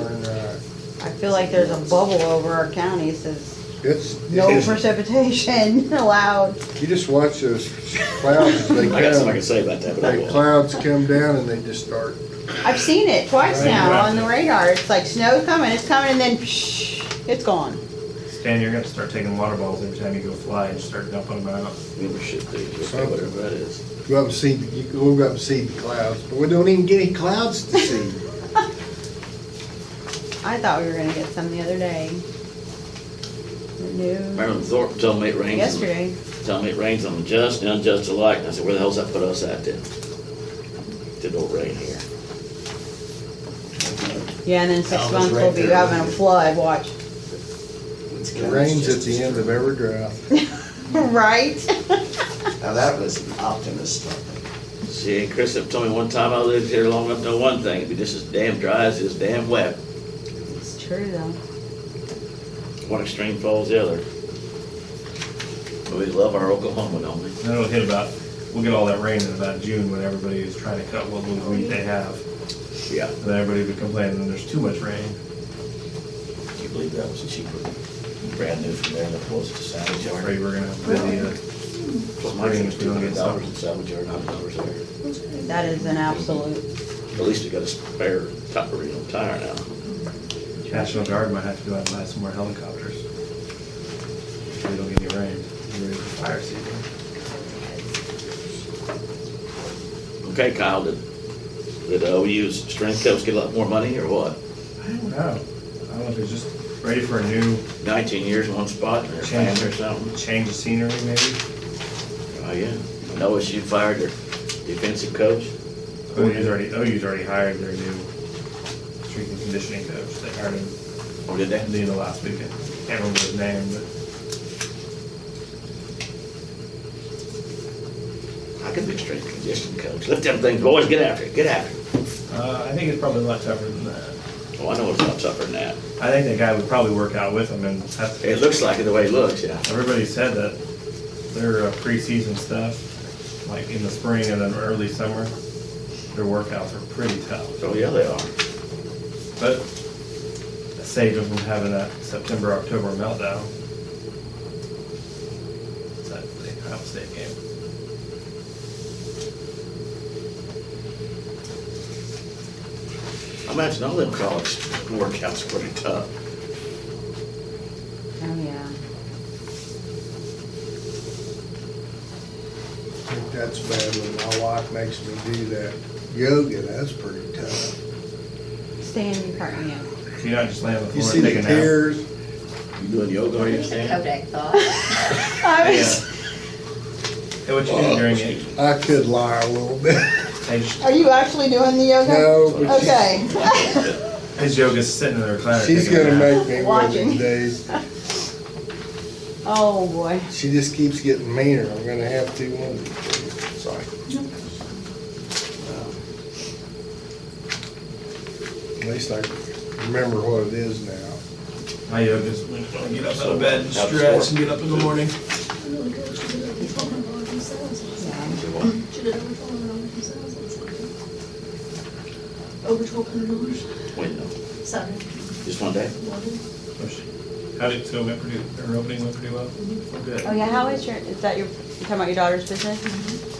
uh, I feel like there's a bubble over our county that says It's, no it's- precipitation allowed. you just watch those clouds, they I got something I can come, say about that, but I they will. clouds come down and they just start, I've seen it twice now on the radar. It's like snow's coming, it's coming, and then psh, it's gone. Stan, you're gonna start taking water bottles every time you go fly and start dumping them out. Membership, fee, okay, whatever that is. go up and see, you go up and see the clouds, but we don't even get any clouds to see. I thought we were gonna get some the other day. The New Marilyn Thorpe told me it rains. on- yesterday. Told me it rains on the just and unjust alike, and I said, where the hell's that put us at then? Did not rain here. Yeah, and then six Alva's months right we'll be there. having a flood. Watch. It rains at the end of every drought. Right? Now, that was an optimist talking. See, Chris have told me one time I lived here long enough to know one thing, it'd be just as damn dry as it is damn wet. It's true though. One extreme follows the other. But we love our Oklahoma, don't we? And then it'll hit about, we'll get all that rain in about June when everybody is trying to cut what little wheat they have. Yeah. And then everybody will be complaining that there's too much rain. Do you believe that was cheaper, brand new from there than it was at the salvage I'm yard? afraid we're gonna have to be, uh, Well, my thing is Rain, we two don't get hundred dollars in salvage yard, hundred dollars there. That is an absolute. At least we got a spare tire, you know, tire now. National Guard might have to go out and buy some more helicopters. If we don't get any rain, we're ready for fire season. Okay, Kyle, did, did OU's strength coach get a lot more money or what? I don't know. I don't know if it's just ready for a new Nineteen years in one spot or change or something? change of scenery maybe. Oh, yeah. I know you fired their defensive coach. OU's already, OU's already hired their new strength and conditioning coach. They hired him Or did at they? the end of last weekend. Can't remember his name, but I could be a strength and conditioning coach. Let them things, boys, get after it, get after it. uh, I think it's probably a lot tougher than that. Oh, I know it's a lot tougher than that. I think that guy would probably work out with him and have to. It looks like it the way it looks, yeah. Everybody said that their uh, preseason stuff, like in the spring and then early summer, their workouts are pretty tough. Oh, yeah, they are. But it saved them from having that September, October meltdown. It's that the Ohio State game. I imagine all them college workouts are pretty tough. Oh yeah. I think That's bad when my wife makes me do that yoga, that's pretty tough. Stan, you crack me up. So you're not just laying on the You floor see and the taking a nap. tears, You doing yoga, are you Stan? Kodak thought. I Yeah. was- Hey, what you doing Oh, during it? I could lie a little bit. Hey, sh- Are you actually doing the yoga? No, but she- Okay. His yoga's sitting in the recliner. she's taking a gonna nap. make me one of Watching. these days. Oh boy. She just keeps getting meaner, I'm gonna have to one of these days. Sorry. At least I remember what it is now. My yoga's when I get up out of bed and stretch and get up in the morning. Yeah. Over twelve hundred dollars, Wait, no, sorry, just one day? water. Oh, shit. How did, so went pretty, her opening went pretty well? Mm-hmm. Well, Good. Oh yeah. How is your? Is that your? You talking about your daughter's business?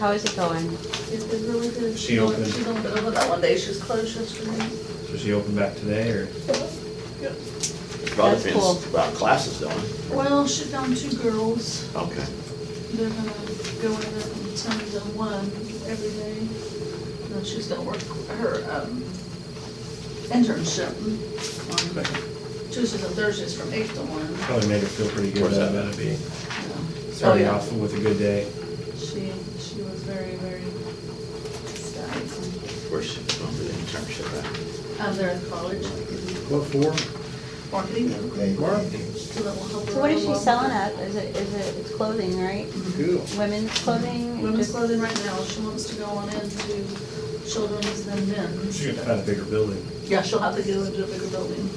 How is it going? It's been really good. She opened. She's opened over that one day, she was closed yesterday. So she opened back today or? Probably That's cool. depends about classes, don't it? Well, she found two girls, Okay. they're gonna go in and turn to one every day. And then she's gonna work her, um, internship on Tuesdays and Thursdays from eight to one. Probably made her feel pretty good Where's that? about it being, you know. starting Oh, yeah. off with a good day. She, she was very, very stout. Where's she going for the internship Um, they're in college, What for? marketing, so that will help her. So what is she along. selling at? Is it? Is it? It's clothing, right? Cool. Women's clothing. Women's Just- clothing right now, she wants to go on into children's and men's. She could find a bigger building. Yeah, she'll have to go into a bigger building.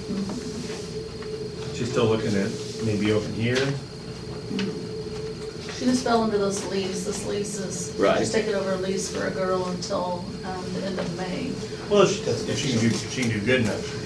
She's still looking at maybe open here. She just fell under those leaves, this lease is. Right. She's taking over a lease for a girl until, um, the end of May. Well, if she, if she can do, if she can do good enough, she